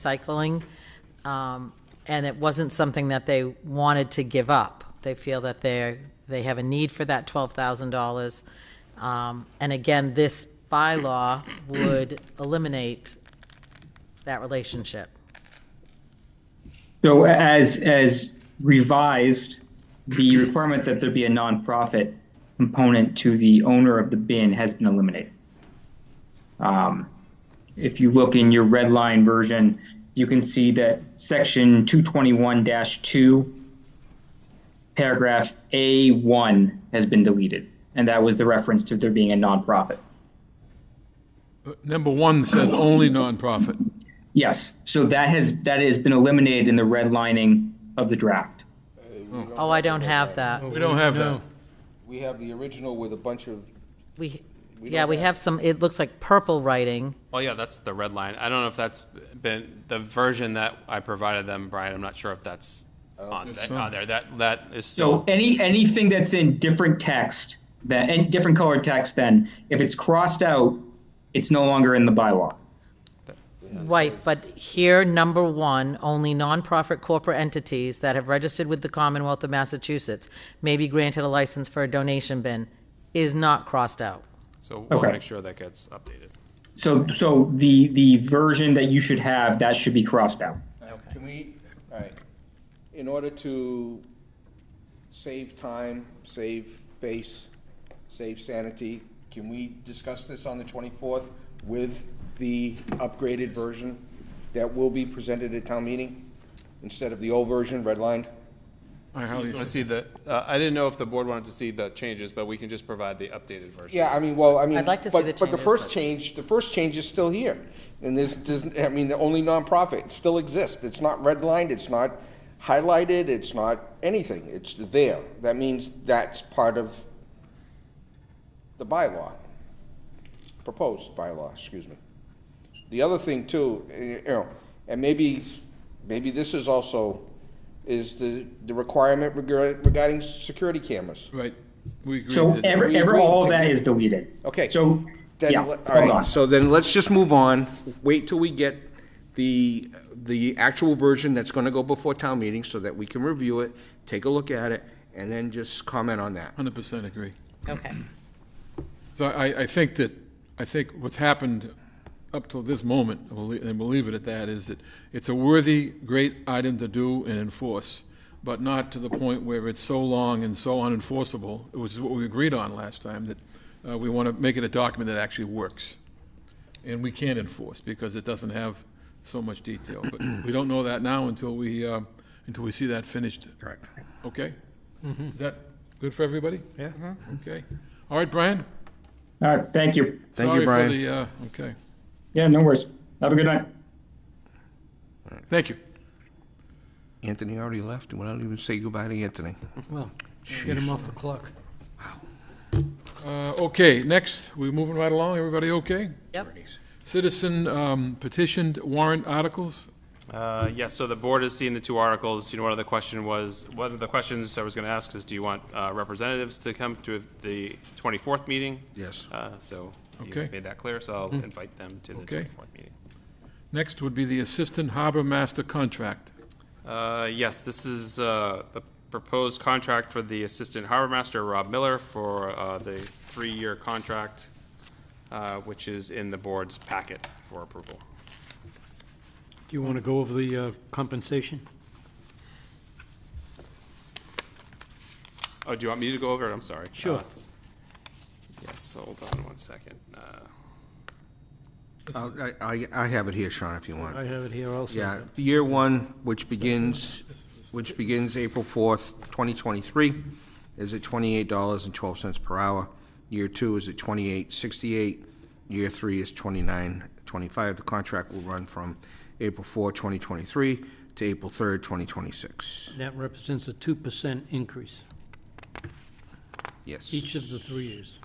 recycling. um, And it wasn't something that they wanted to give up. They feel that they're, they have a need for that $12,000. Um, And again, this bylaw would eliminate that relationship. So as, as revised, the requirement that there be a nonprofit component to the owner of the bin has been eliminated. Um, If you look in your red line version, you can see that section 221-2, paragraph A1 has been deleted. And that was the reference to there being a nonprofit. Number one says only nonprofit. Yes, so that has, that has been eliminated in the redlining of the draft. Oh, I don't have that. We don't have that. We have the original with a bunch of, We, yeah, we have some, it looks like purple writing. Well, yeah, that's the red line. I don't know if that's been the version that I provided them, Brian. I'm not sure if that's on, There's that, some. on there. That that is So still any anything that's in different text that and different colored text, then if it's crossed out, it's no longer in the bylaw. Right, but here, number one, only nonprofit corporate entities that have registered with the Commonwealth of Massachusetts may be granted a license for a donation bin is not crossed out. so. We'll Okay. make sure that gets updated. So so the the version that you should have that should be crossed out. can we, all right, in order to save time, save face, save sanity, can we discuss this on the 24th with the upgraded version that will be presented at town meeting instead of the old version, redlined? I I highly want to suggest. see the. Uh, I didn't know if the board wanted to see the changes, but we can just provide the updated version. Yeah, I mean, well, I mean. I'd like to see but- the But the changes, first but- change, the first change is still here. And this doesn't, I mean, the only nonprofit still exists. It's not redlined, it's not highlighted, it's not anything. It's there. That means that's part of the bylaw, proposed bylaw, excuse me. The other thing too, eh, you know, and maybe, maybe this is also, is the, the requirement regard- regarding security cameras. Right, we agree. So that- every, We every agreed all of to that get- is deleted. Okay. So Then, yeah, let- hold all right, on. so then let's just move on, wait till we get the, the actual version that's gonna go before town meeting so that we can review it, take a look at it, and then just comment on that. 100% agree. Okay. So I, I think that, I think what's happened up till this moment, we'll le- and we'll leave it at that, is that it's a worthy, great item to do and enforce, but not to the point where it's so long and so unenforceable, which is what we agreed on last time, that uh, we want to make it a document that actually works. And we can enforce because it doesn't have so much detail. But we don't know that now until we, uh, until we see that finished. Correct. Okay? Is that good for everybody? Yeah. Okay. All right, Brian? All right, thank you. Thank you, Brian. Sorry for the, uh, okay, Yeah, no worries. Have a good night. thank you. Anthony already left, and we don't even say goodbye to Anthony. Well, get him off the clock. Uh, Okay, next, we're moving right along, everybody okay? Yep. Citizen um, petitioned warrant articles, Uh, yes, so the board has seen the two articles. You know, one of the question was, one of the questions I was going to ask is, do you want uh, representatives to come to the 24th meeting? Yes. Uh, So you Okay. made that clear, so I'll invite them to the Okay. 24th meeting. next would be the assistant harbor master contract. Uh, Yes, this is uh, the proposed contract for the Assistant Harbor Master, Rob Miller, for uh, the three-year contract, uh, which is in the board's packet for approval. Do you want to go over the uh, compensation? Oh, do you want me to go over it? I'm sorry. Sure. Uh, Yes, hold on one second. Uh, I'll- I, I- I have it here, Sean, if you I want. have it here also. Yeah, year one, which begins, which begins April fourth, twenty twenty-three, is at twenty-eight dollars and twelve cents per hour. Year two is at twenty-eight sixty-eight. Year three is twenty-nine twenty-five. The contract will run from April fourth, twenty twenty-three to April third, twenty twenty-six. That represents a 2% increase Yes. each of the three years.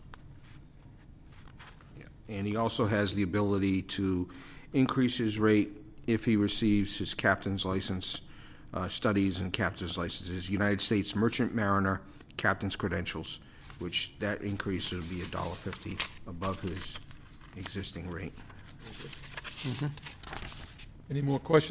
And he also has the ability to increase his rate if he receives his captain's license, uh, studies and captain's licenses, United States Merchant Mariner captain's credentials, which that increase would be a dollar fifty above his existing rate. Any more questions